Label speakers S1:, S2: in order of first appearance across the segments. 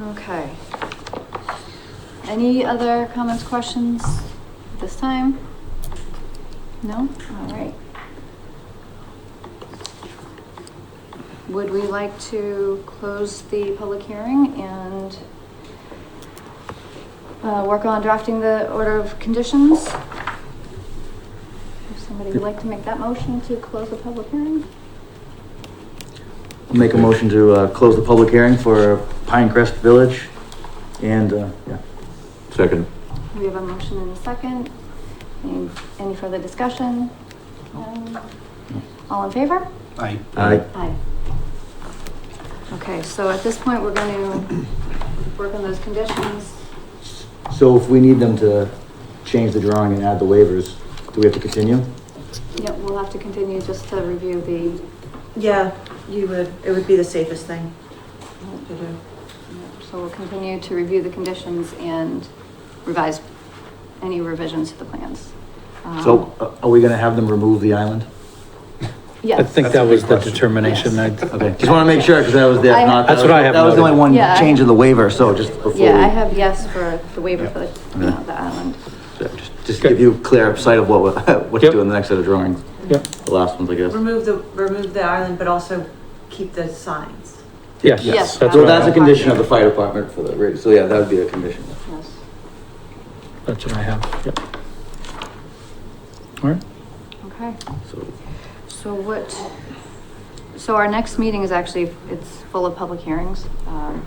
S1: Okay. Any other comments, questions this time? No? All right. Would we like to close the public hearing and uh, work on drafting the order of conditions? If somebody would like to make that motion to close the public hearing?
S2: Make a motion to, uh, close the public hearing for Pinecrest Village and, uh, yeah.
S3: Second.
S1: We have a motion and a second. Any, any further discussion? Um, All in favor?
S4: Aye.
S2: Aye.
S1: Aye. Okay, so at this point, we're going to work on those conditions.
S2: So if we need them to change the drawing and add the waivers, do we have to continue?
S1: Yep, we'll have to continue just to review the,
S5: Yeah, you would, it would be the safest thing to do.
S1: so we'll continue to review the conditions and revise any revisions to the plans. Um,
S2: So uh, are we gonna have them remove the island?
S1: Yes.
S6: I think
S4: That's a
S6: that
S4: big
S6: was the
S4: question.
S6: determination. I,
S2: Okay, just wanna make sure, cause that was the,
S1: I-
S2: not.
S6: That's what I have
S2: That was the only
S6: noted.
S2: one
S1: Yeah, I-
S2: change in the waiver, so just before.
S1: Yeah, I
S2: we-
S1: have yes for the waiver for the,
S2: Okay.
S1: the island.
S2: just- Just give you clear sight of what, we're- what to
S6: Yep.
S2: do in the next set of drawings,
S6: Yep.
S2: the last ones, I guess.
S5: Remove the, remove the island, but also keep the signs.
S6: Yes,
S1: Yes.
S6: that's
S2: So
S6: what
S2: that's
S6: I,
S2: a condition of the fire department for the, ra- so yeah, that would be a condition.
S1: Yes.
S6: that's what I have. Yep. All right.
S1: Okay.
S2: So,
S1: So what, so our next meeting is actually, it's full of public hearings. um,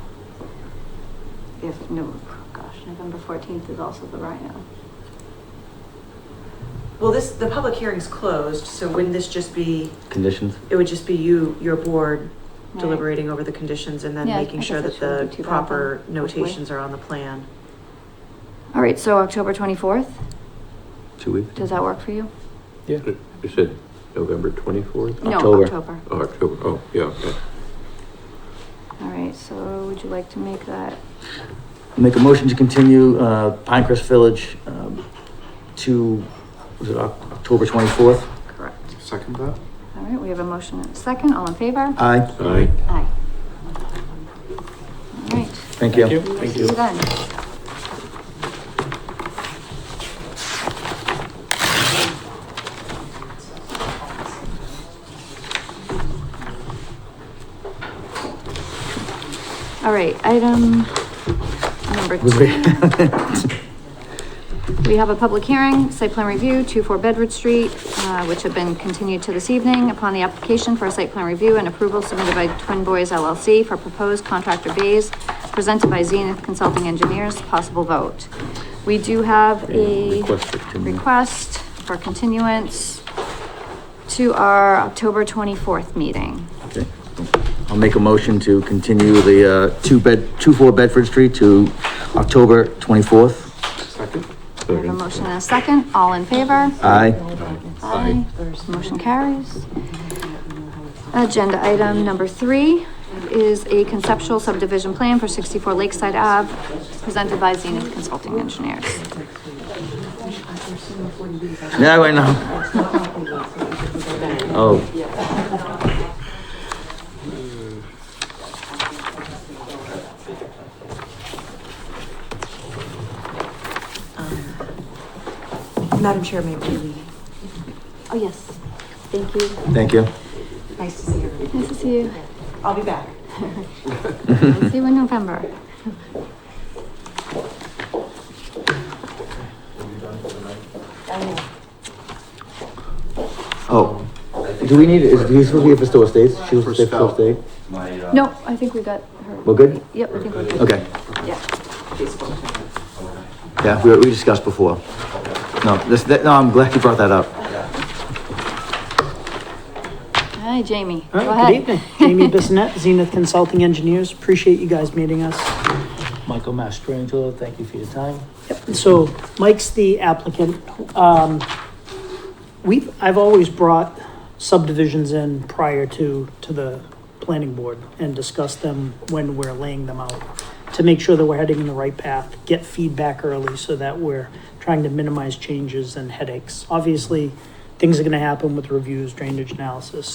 S1: If, no, gosh, November fourteenth is also the uh, Rhino.
S5: Well, this, the public hearing's closed, so wouldn't this just be,
S2: conditions?
S5: it would just be you, your board
S1: Right.
S5: deliberating over the conditions and then
S1: Yeah, I
S5: making
S1: guess
S5: sure
S1: that
S5: that
S1: shouldn't be too
S5: the
S1: bad
S5: proper
S1: then, hopefully.
S5: notations are on the plan.
S1: All right, so October twenty-fourth,
S2: Two weeks?
S1: does that work for you?
S6: Yeah.
S3: You said November twenty-fourth?
S1: No,
S2: October.
S1: October.
S3: Oh, October, oh, yeah, okay.
S1: All right, so would you like to make that,
S2: Make a motion to continue, uh, Pinecrest Village, um, to, was it Oc- October twenty-fourth?
S1: correct?
S4: Second that?
S1: All right, we have a motion and a second, all in favor?
S2: Aye.
S3: Aye.
S1: Aye. All right.
S2: Thank you.
S6: you.
S1: Thank you. Then. All right, item number
S2: Was
S1: two.
S2: it-
S1: We have a public hearing, site plan review, two four Bedford Street, uh, which have been continued to this evening upon the application for a site plan review and approval submitted by Twin Boys LLC for proposed contractor bays presented by Zenith Consulting Engineers, possible vote. We do have a
S2: Request for continu-
S1: request for continuance to our October twenty-fourth meeting.
S2: Okay. I'll make a motion to continue the, uh, two bed, two four Bedford Street to October twenty-fourth.
S4: Second?
S1: We have a motion and a second, all in favor?
S2: Aye.
S1: Aye. Motion carries. Agenda item number three is a conceptual subdivision plan for sixty-four Lakeside Ave, presented by Zenith Consulting Engineers.
S2: Yeah, right now. Oh.
S5: Madam Chair, may we?
S1: Oh, yes. Thank you.
S2: Thank you.
S5: Nice to see you.
S1: Nice to see you.
S5: I'll be back.
S1: See you in November.
S2: Oh. Do we need, is, he's supposed to be for Stowe Estates? She was supposed to stay for Stowe Estate?
S1: No, I think we got her.
S2: We're good?
S1: Yep, I think we're good.
S2: Okay.
S1: Yeah.
S2: Yeah, we, we discussed before. No, this, that, no, I'm glad you brought that up.
S1: Hi, Jamie. Go
S7: All right,
S1: ahead.
S7: good evening. Jamie Bissonette, Zenith Consulting Engineers. Appreciate you guys meeting us.
S6: Michael Mastrangelo, thank you for your time.
S7: So Mike's the applicant. Um, we've, I've always brought subdivisions in prior to, to the planning board and discussed them when we're laying them out to make sure that we're heading in the right path, get feedback early so that we're trying to minimize changes and headaches. Obviously, things are gonna happen with reviews, drainage analysis,